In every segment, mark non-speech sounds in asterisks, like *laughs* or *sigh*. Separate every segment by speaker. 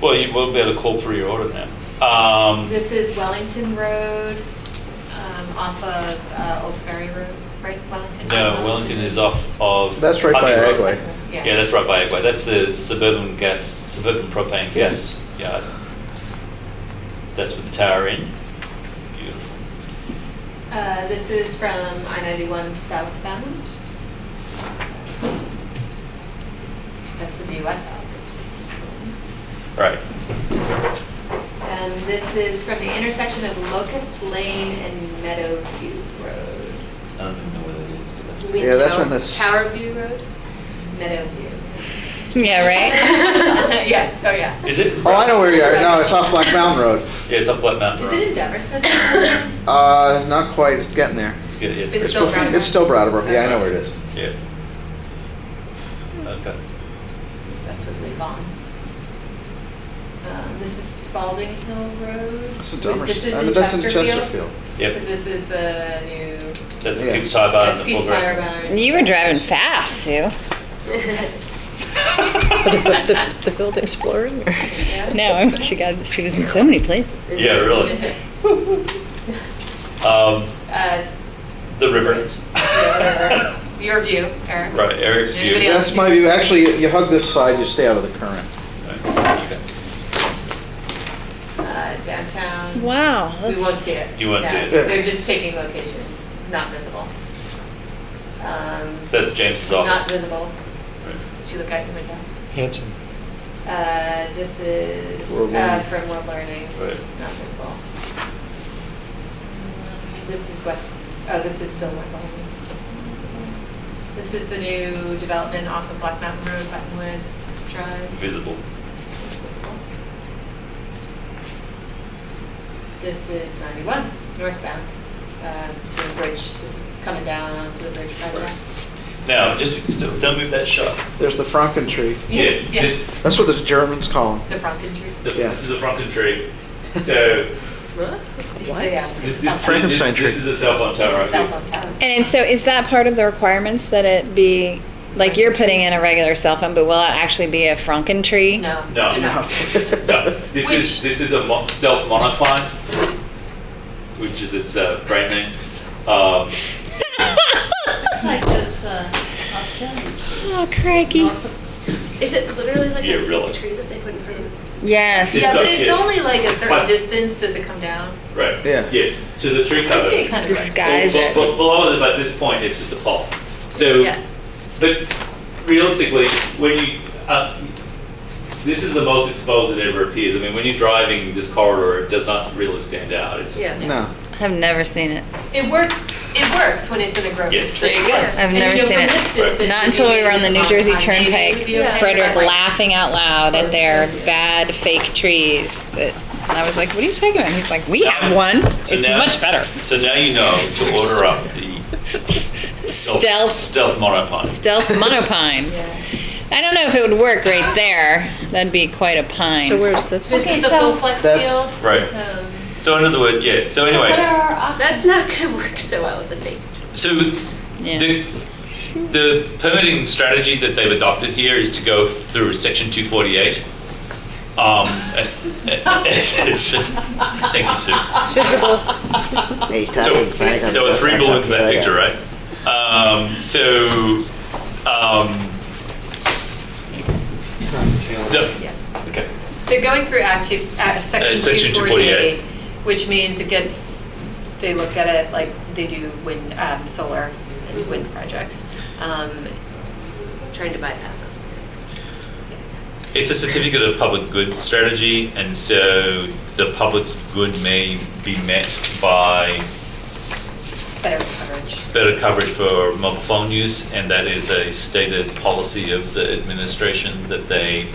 Speaker 1: Well, you will be able to call through your order now. Um,
Speaker 2: This is Wellington Road, um, off of uh, Old Ferry Road, right, Wellington?
Speaker 1: No, Wellington is off of.
Speaker 3: That's right by
Speaker 1: Putney Road.
Speaker 3: Agway.
Speaker 1: Yeah, that's right by Agway. That's the suburban gas, suburban propane gas yard. That's with the tower in. Beautiful.
Speaker 2: Uh, This is from I-91 southbound. That's the BUS out.
Speaker 1: Right.
Speaker 2: And Um, this is from the intersection of Locust Lane and Meadowview Road.
Speaker 1: I don't even know where that is, but that's.
Speaker 3: Yeah, that's when this-
Speaker 2: Tower View Road?
Speaker 1: *laughs*
Speaker 2: Meadowview. *laughs*
Speaker 4: Yeah, right? *laughs*
Speaker 2: Yeah, oh yeah.
Speaker 1: Is it?
Speaker 3: Oh, I know where you are. No, it's off Black Mountain Road.
Speaker 1: Yeah, it's up Black Mountain
Speaker 2: Is
Speaker 1: Road.
Speaker 2: it in Deverson?
Speaker 1: *laughs*
Speaker 2: *laughs*
Speaker 3: Uh, not quite. It's getting there.
Speaker 1: It's good, yeah.
Speaker 2: It's still
Speaker 3: bef-
Speaker 2: Brattleboro.
Speaker 3: It's still Brattleboro. Yeah, I know where it is.
Speaker 1: Yeah.
Speaker 2: Hmm.
Speaker 1: Okay.
Speaker 2: That's with Lee Vaughn. Um, This is Spalding Hill Road.
Speaker 3: That's a dumber.
Speaker 2: This is
Speaker 3: I
Speaker 2: in
Speaker 3: mean, that's in
Speaker 2: Chesterfield.
Speaker 3: Chesterfield.
Speaker 1: Yep.
Speaker 2: Because this is the new,
Speaker 1: That's a
Speaker 3: Yeah.
Speaker 1: big tie bar in
Speaker 2: that's
Speaker 1: Uh, the
Speaker 2: Peace Tire
Speaker 1: foreground.
Speaker 2: Barn.
Speaker 4: You were
Speaker 2: *laughs*
Speaker 4: driving fast, Sue.
Speaker 5: The the Field Exploring? or-
Speaker 4: No, she got she was in so many places.
Speaker 1: Yeah, really. *laughs* Um,
Speaker 2: Uh,
Speaker 1: the river. *laughs*
Speaker 2: yeah, whatever. Your view, Eric.
Speaker 1: Right, Eric's view.
Speaker 2: Anybody
Speaker 3: That's my view. Actually, you- you hug this side, you stay out of the current.
Speaker 1: Right, okay.
Speaker 2: Uh, Downtown.
Speaker 4: Wow.
Speaker 2: We won't see it.
Speaker 1: You won't see
Speaker 2: No,
Speaker 1: it.
Speaker 2: They're just taking locations, not visible. Um,
Speaker 1: That's James's
Speaker 2: Not
Speaker 1: office.
Speaker 2: visible.
Speaker 1: Right.
Speaker 2: See the guy coming down.
Speaker 6: Hanson.
Speaker 2: Uh, this is
Speaker 3: World
Speaker 2: uh,
Speaker 3: Learning.
Speaker 2: from World Learning,
Speaker 1: Right.
Speaker 2: not visible. This is West, oh, this is still World Learning. This is the new development off of Black Mountain Road, Buttonwood Drive.
Speaker 1: Visible.
Speaker 2: It's visible. This is 91, northbound, uh, to the bridge. This is coming down onto the bridge project.
Speaker 1: Now, just don't move that shot.
Speaker 3: There's the Franken tree.
Speaker 1: Yeah,
Speaker 2: Yeah.
Speaker 1: this
Speaker 3: That's what the Germans call them.
Speaker 2: The Franken tree.
Speaker 1: the,
Speaker 3: Yeah.
Speaker 1: this is a
Speaker 3: *laughs*
Speaker 1: Franken-tree. So
Speaker 2: It's a, yeah, it's
Speaker 1: this,
Speaker 2: a cell
Speaker 1: this,
Speaker 2: phone.
Speaker 1: this,
Speaker 3: Frankenstein tree.
Speaker 1: this is a cell phone tower.
Speaker 2: It's a
Speaker 1: right
Speaker 2: cell
Speaker 1: here.
Speaker 2: phone tower.
Speaker 4: And so is that part of the requirements that it be like you're putting in a regular cell phone, but will it actually be a Franken tree? *laughs*
Speaker 2: No.
Speaker 1: No.
Speaker 3: No.
Speaker 1: *laughs* No, this is
Speaker 2: Which-
Speaker 1: this is a mo- stealth monocline, which is its uh, brand name. Um,
Speaker 7: It's like those uh, Australian.
Speaker 4: Oh crikey.
Speaker 8: Is it literally like
Speaker 1: Yeah,
Speaker 8: a
Speaker 1: really.
Speaker 8: fake tree that they put in front of
Speaker 4: Yes.
Speaker 1: Yeah.
Speaker 2: Yeah, but
Speaker 1: does
Speaker 2: it's
Speaker 1: get-
Speaker 2: only like a certain
Speaker 1: But-
Speaker 2: distance, does it come down?
Speaker 1: right.
Speaker 3: Yeah.
Speaker 1: Yes. So the tree cover.
Speaker 2: It kind of works.
Speaker 4: Disguise. Guys
Speaker 1: Well,
Speaker 4: that-
Speaker 1: well, below it, but at this point, it's just a pole. So,
Speaker 8: Yeah.
Speaker 1: but realistically, when you, uh, this is the most exposed it ever appears. I mean, when you're driving this corridor, it does not really stand out. It's
Speaker 8: Yeah.
Speaker 3: No.
Speaker 4: I've never seen it.
Speaker 2: It works, it works when it's in a grocery
Speaker 1: Yes.
Speaker 2: store.
Speaker 1: There you
Speaker 8: go.
Speaker 4: I've never seen it. Not until we were on the New Jersey Turnpike, Frederick laughing out loud at their bad fake trees. That and I was like, "What are you talking about?" And he's like, "We have one.
Speaker 1: So
Speaker 4: It's
Speaker 1: now-
Speaker 4: much better."
Speaker 1: So now you know to order up the
Speaker 4: Stealth,
Speaker 1: stealth monopine.
Speaker 4: stealth monopine. I don't know if it would work right there. That'd be quite a pine.
Speaker 5: So where's this?
Speaker 2: This
Speaker 4: Okay,
Speaker 2: is the
Speaker 4: so-
Speaker 2: full flex
Speaker 3: That's-
Speaker 2: field.
Speaker 1: Right.
Speaker 2: Um,
Speaker 1: So in other words, yeah. So
Speaker 8: What
Speaker 1: anyway,
Speaker 8: are our options? That's not gonna work so well with the fake.
Speaker 1: so
Speaker 4: Yeah.
Speaker 1: The, the permitting strategy that they've adopted here is to go through section 248. Um, *laughs* thank you, Sue.
Speaker 5: It's visible.
Speaker 1: So, there were three bullets in that picture, right? Um, so, um, the,
Speaker 2: yeah.
Speaker 1: okay.
Speaker 2: They're going through Act Two, Act- Section
Speaker 1: Section
Speaker 2: 248, which means it gets, they look at it like they do wind, um, solar and wind projects. Um,
Speaker 8: Trying to bypass us. basically.
Speaker 2: yes.
Speaker 1: It's a certificate of public good strategy, and so the public's good may be met by
Speaker 2: Better coverage.
Speaker 1: better coverage for mobile phone use, and that is a stated policy of the administration that they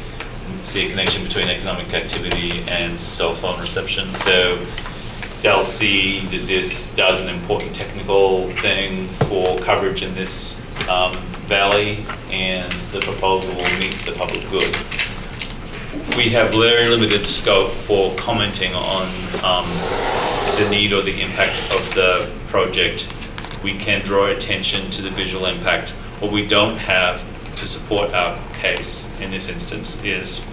Speaker 1: see a connection between economic activity and cell phone reception. So they'll see that this does an important technical thing for coverage in this um, valley, and the proposal will meet the public good. We have very limited scope for commenting on um, the need or the impact of the project, we can draw attention to the visual impact. What we don't have to support our case in this instance is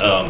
Speaker 1: um,